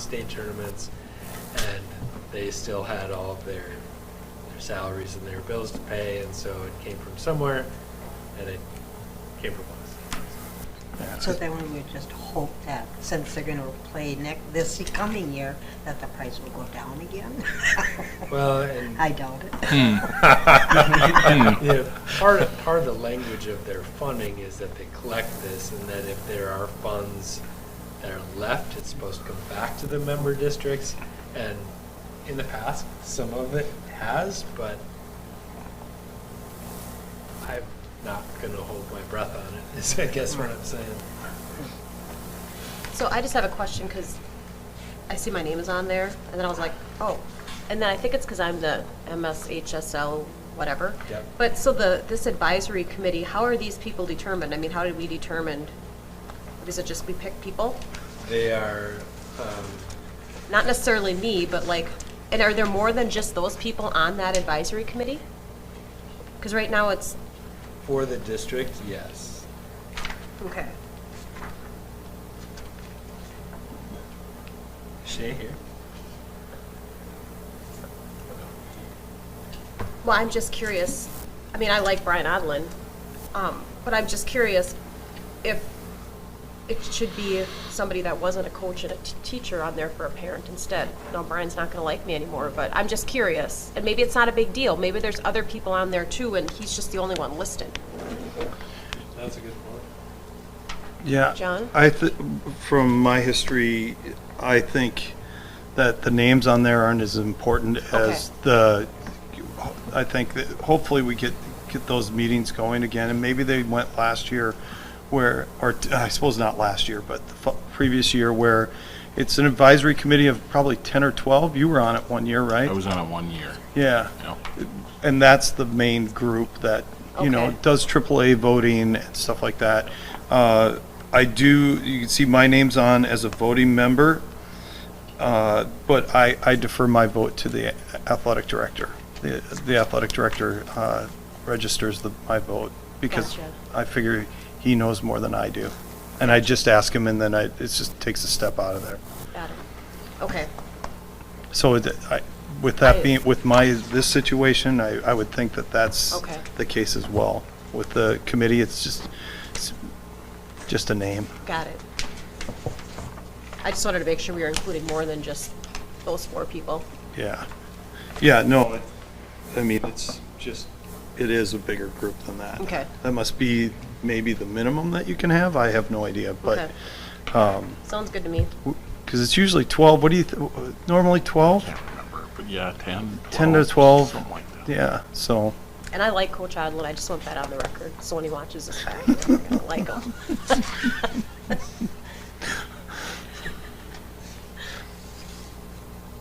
state tournaments, and they still had all of their, their salaries and their bills to pay, and so it came from somewhere, and it came from us. So then we would just hope that since they're gonna play next, this coming year, that the price will go down again? Well, and I doubt it. Hmm. you know, part of, part of the language of their funding is that they collect this, and that if there are funds that are left, it's supposed to come back to the member districts. And in the past, some of it has, but I'm not going to hold my breath on it. Is I guess what I'm saying. So I just have a question because I see my name is on there, and then I was like, oh. And then I think it's because I'm the MSHSL whatever. Yep. But so the, this advisory committee, how are these people determined? I mean, how did we determine? Is it just we pick people? They are. Um, Not necessarily me, but like, and are there more than just those people on that advisory committee? Because right now it's, for the district, yes. okay. Shay here. Well, I'm just curious. I mean, I like Brian Odlin, um, but I'm just curious if it should be somebody that wasn't a coach and a t- teacher on there for a parent instead. No, Brian's not going to like me anymore, but I'm just curious. And maybe it's not a big deal. Maybe there's other people on there too, and he's just the only one listed. That's a good point. Yeah. John? I th- from my history, I think that the names on there aren't as important as the. I think that hopefully we get get those meetings going again, and maybe they went last year, where or t- I suppose not last year, but the fu- previous year where. It's an advisory committee of probably 10 or 12. You were on it one year, right? I was on a one year, yeah. you know. And that's the main group that, you know, Okay. does AAA voting and stuff like that. Uh, I do, you can see my name's on as a voting member, uh, but I, I defer my vote to the athletic director. The the athletic director uh, registers the, my vote because Gotcha. I figure he knows more than I do. And I just ask him and then I, it just takes a step out of there. Got it. Okay. So it- I- with that I- being, with my, this situation, I, I would think that that's Okay. the case as well. With the committee, it's just, it's just a name. Got it. I just wanted to make sure we were including more than just those four people. Yeah. Yeah, no, it- I mean, it's just, it is a bigger group than that. Okay. That must be maybe the minimum that you can have. I have no idea, but, Okay. Sounds good to me. because it's usually 12, what do you, th- normally 12? Can't remember, but yeah, 10, 10 to 12? Something like that. Yeah, so, And I like Coach Odlin, I just want that on the record, so when he watches this back, he's gonna like him.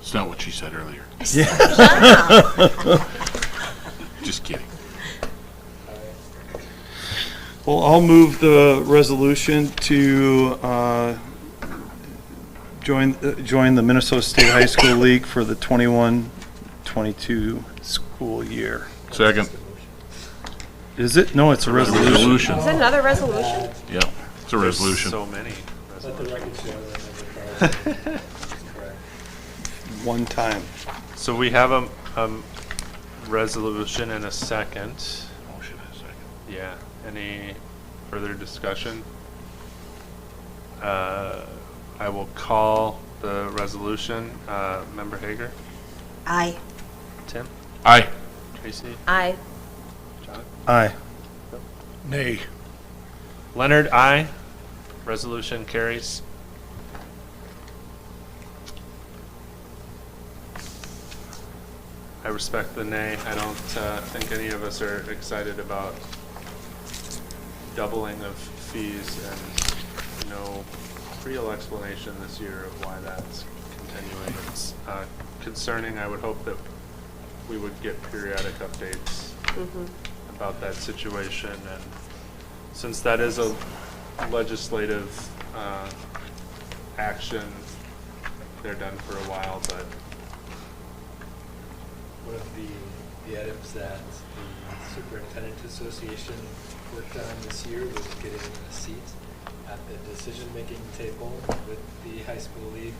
It's not what she said earlier. Just kidding. well, I'll move the resolution to, uh, join, uh, join the Minnesota State High School League for the 21-22 school year. Second. Is it? No, it's a resolution. Resolution, Is that another resolution? yeah, it's a resolution. So many. Let the record show that. I'm a Carl. Correct. One time. So we have a, a resolution and a second. Motion and second. Yeah. Any further discussion? Uh, I will call the resolution. Uh, Member Hager, I, Tim, Aye. Tracy, Aye. John. Aye. Nay. Leonard, aye. Resolution carries. I respect the nay. I don't uh, think any of us are excited about doubling of fees and no real explanation this year of why that's continuing. It's uh, concerning. I would hope that we would get periodic updates about that situation and since that is a legislative uh, action, they're done for a while, but one of the, the items that the superintendent association worked on this year was getting a seat at the decision-making table with the high school league